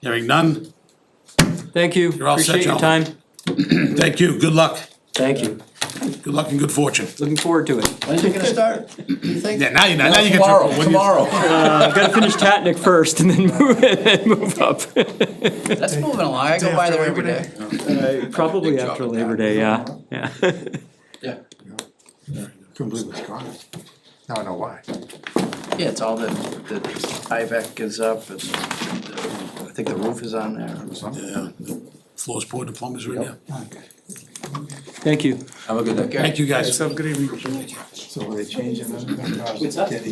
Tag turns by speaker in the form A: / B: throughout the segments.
A: Hearing none,
B: Thank you,
A: all set,
B: appreciate your time,
A: gentlemen. thank you, good luck,
B: thank you,
A: good luck and good fortune.
B: looking forward to it.
C: When's it gonna start? You think?
A: Yeah, now you, now you get your.
C: Tomorrow,
A: when you-
C: tomorrow.
B: I've gotta finish Tatnik first and then move, and then move up,
C: That's moving along. I go by there every day.
B: probably after Labor Day, yeah, yeah.
C: Yeah.
D: Couldn't believe it's gone. Now I know why.
C: Yeah, it's all the, the IVAC is up and
E: uh,
C: the- I think the roof is on there.
A: Yeah, the Floor's poured, the plumbers are in there.
B: Thank you.
C: Have a good day.
A: Thank you, guys.
D: So were they changing them?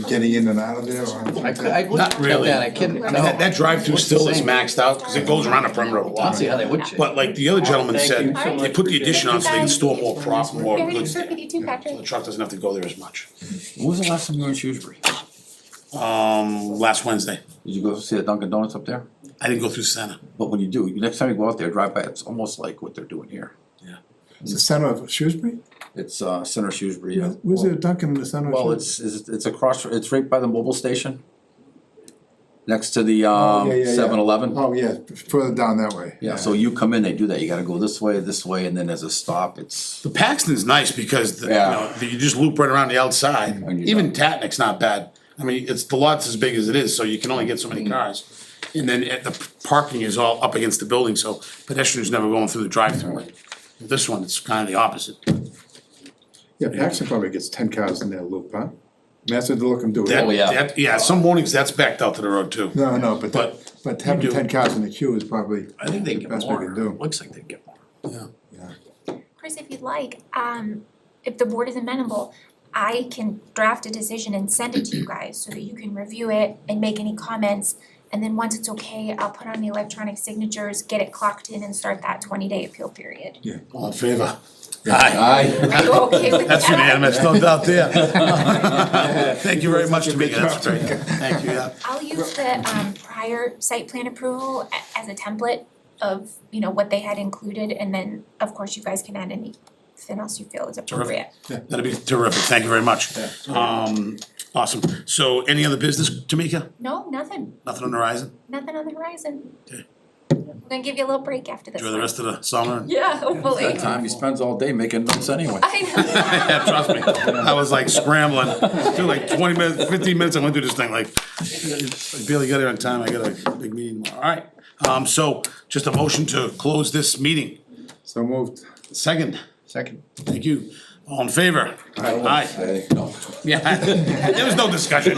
D: Getting in and out of there
C: I,
D: or?
C: cou- I
A: Not
C: looked at
A: really.
C: that, I couldn't,
A: I mean, that,
C: no.
A: that drive-through still is maxed out, cause it goes around the perimeter of the
C: I don't
A: lot.
C: see how they would change.
A: But like the other gentleman
B: Thank you
A: said,
B: so
A: they
B: much.
A: put the addition on so they can store more prop, more
F: Merry
A: goods
F: Christmas
A: there.
F: to you too,
A: The
F: Patrick.
A: truck doesn't have to go there as much.
E: When was the last time you were in Shrewsbury? Did
A: Um, last Wednesday,
E: you go see the Dunkin' Donuts up there?
A: I didn't go through Santa.
E: But when you do, you- next time you go out there, drive by, it's almost like what they're doing here.
D: It's the center of Shrewsbury?
E: It's uh Center Shrewsbury. yeah.
D: Where's there a Dunkin' in the center of?
E: Well,
D: Shrewsbury?
E: it's it's it's across, it's right by the mobile station. Next to the um
D: Yeah, yeah, yeah.
E: seven eleven.
D: Oh, yeah, further down that way.
E: Yeah, so you come in, they do that. You gotta go this way, this way, and then there's a stop. It's,
A: The Paxton's nice because, the- you
E: Yeah.
A: know, the- you just loop right around the outside,
E: And you're
A: even Tatnick's not bad. I mean, it's, the lot's as big as it is, so you can only get so many cars. And then at the parking is all up against the building, so pedestrians never going through the drive-through.
E: Mm-hmm.
A: This one, it's kind of the opposite.
D: Yeah, Paxton probably gets ten cars in that loop, huh? I mean, That's what they look and do.
A: That-
E: Oh, yeah.
A: that- Yeah, some mornings that's backed out to the road too.
D: No, no, but
A: But
D: that, but having
A: do.
D: ten cars in the queue is probably.
C: I think they
D: the
C: get
D: best we
C: more,
D: can do.
C: looks like they get more.
F: Chris, if you'd like, um, if the board is amenable, I can draft a decision and send it to you guys so that you can review it and make any comments. And then once it's okay, I'll put on the electronic signatures, get it clocked in and start that twenty day appeal period.
A: All in favor? Aye.
E: I,
F: Are you okay with that?
A: That's unanimous, no doubt there. Thank you very much, Tamika, that's great. Thank you, yeah.
F: I'll use the um prior site plan approval a- as a template of, you know, what they had included and then of course you guys can add anything else you feel is appropriate.
A: That'd be terrific, thank you very much. Um, awesome, so any other business, Tamika?
F: No, nothing,
A: Nothing on the horizon?
F: nothing on the horizon. We're gonna give you a little break after this
A: Enjoy the
F: one.
A: rest of the summer?
F: Yeah, hopefully.
E: that time he spends all day making notes anyway.
F: I
A: Yeah, trust me, I was like scrambling, took like twenty minutes, fifteen minutes, I went through this thing like, I barely got here on time, I got a big meeting tomorrow, alright. Um, so, just a motion to close this meeting,
D: So moved.
A: second,
C: Second.
A: thank you, all in favor? Aye.
E: Hey, no.
A: Yeah, there was no discussion.